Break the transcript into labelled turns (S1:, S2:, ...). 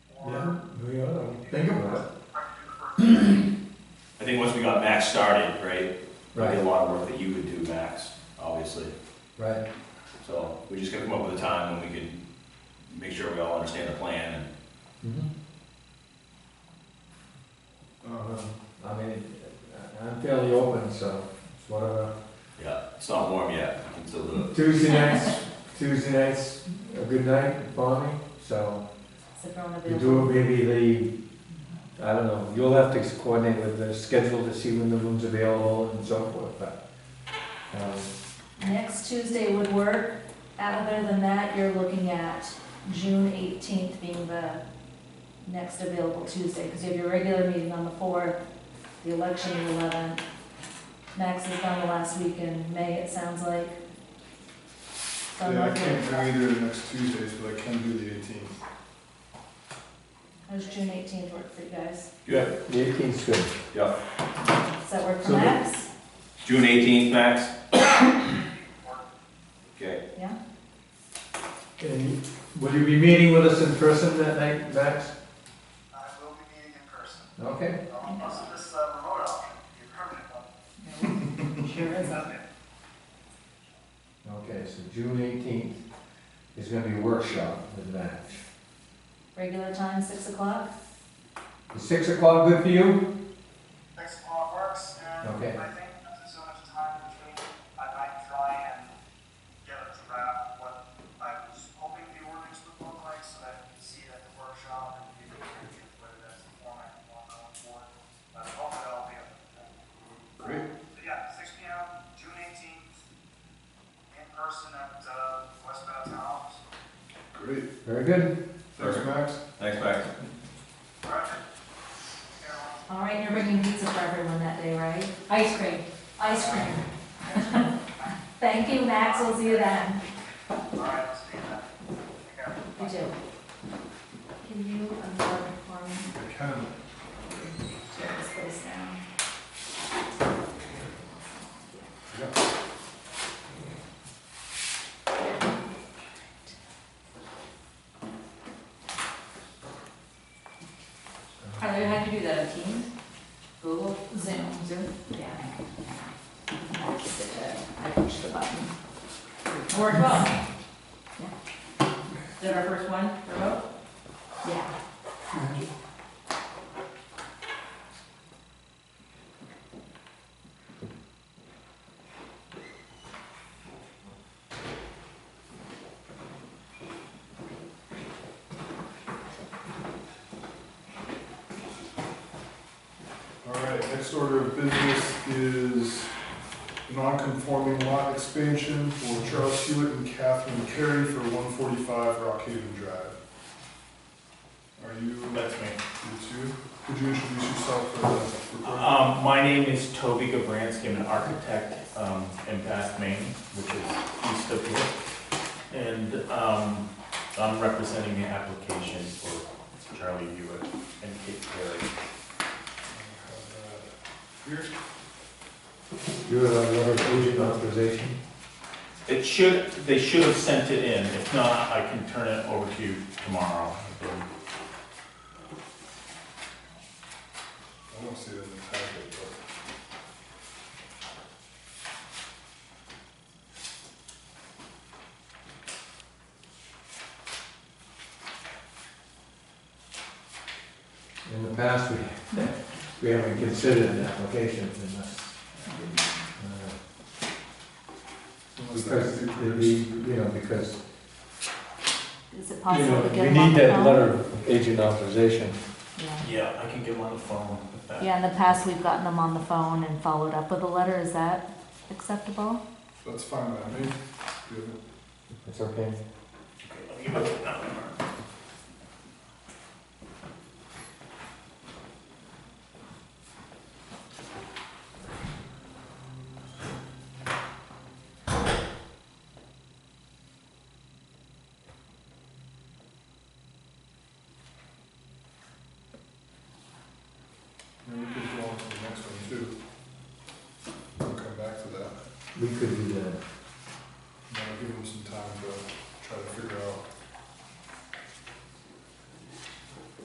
S1: Oh,
S2: I think once we got Max started, right, there'd be
S1: Right,
S2: a lot of work that you would do, Max, obviously.
S1: right,
S2: So we just gotta come up with a time when we can make sure we all understand the plan and
S1: mhm. Um, I mean, I- I'm fairly open, so it's whatever.
S2: Yeah, it's not warm yet, I can still do it.
S1: Tuesday nights, Tuesday nights, a good night for me, so you do it maybe the, I don't know, you'll have to coordinate with the schedule to see when the room's available and so forth, but, um,
S3: Next Tuesday would work. Other than that, you're looking at June eighteenth being the next available Tuesday, because you have your regular meeting on the fourth, the election the eleventh. Max is gone the last week in May, it sounds like. So I'm
S4: Yeah, I
S3: looking-
S4: can't do either of the next Tuesdays, but I can do the eighteenth.
S3: How does June eighteenth work for you guys?
S2: Good,
S1: the eighteenth's good.
S3: Does that work for
S1: So the-
S3: Max?
S2: June eighteenth, Max? Okay,
S3: Yeah?
S1: And will you be meeting with us in person that night, Max?
S5: I will be meeting in person.
S1: Okay,
S5: Um, Also, this uh, remote option, the permanent one,
S3: Sure is.
S1: okay, so June eighteenth is gonna be a workshop with Max.
S3: Regular time, six o'clock?
S1: Is six o'clock good for you?
S5: six o'clock works, and
S1: Okay.
S5: I think there's so much time between, I might try and get a draft of what I was hoping the ordinance would look like, so that you can see it at the workshop and you can review whether that's the format you want going forward. But hopefully that'll be able to.
S4: Great.
S5: So yeah, six P M, June eighteenth, in person at, uh, West Bath Town Office.
S4: Great.
S1: Very good.
S4: Thanks, Max.
S2: thanks, Max.
S5: All right. Everyone.
S3: All right, you're bringing pizza for everyone that day, right? Ice cream. Ice cream. Thank you, Max, we'll see you then.
S5: All right, let's do that. Take care.
S3: You too. Can you unplug for me,
S4: I can.
S3: tear this place down?
S6: Are they had to do that on Teams? Google?
S3: Zoom.
S6: Zoom?
S3: Yeah. I just did it. I pushed the button.
S6: Or remote? Is that our first one, remote?
S3: Yeah.
S4: All right, next order of business is non-conforming lot expansion for Charles Hewitt and Catherine Carey for one forty-five Rockhaven Drive. Are you,
S7: That's me.
S4: you two? Could you introduce yourself for the recording?
S7: Um, my name is Toby Gabransky, I'm an architect, um, in Bath, Maine, which is east of here. And, um, I'm representing the application for Charlie Hewitt and Kate Perry.
S4: Here,
S1: You have a letter of agent authorization?
S7: It should, they should have sent it in, if not, I can turn it over to you tomorrow. I believe.
S4: I don't see it in the packet, but.
S1: In the past, we, we haven't considered an application unless, uh,
S4: Unless that's
S1: because,
S4: the-
S1: it'd be, you know, because,
S3: Is it
S1: you
S3: possible
S1: know,
S3: to
S1: we
S3: get them on
S1: need
S3: the
S1: that
S3: phone?
S1: letter of agent authorization.
S3: Yeah.
S7: Yeah, I can get him on the phone with that.
S3: Yeah, in the past, we've gotten them on the phone and followed up with a letter, is that acceptable?
S4: That's fine, by me. Good.
S1: It's okay.
S7: Okay, let me give it that number.
S4: And we could go on to the next one too. We'll come back to that.
S1: We could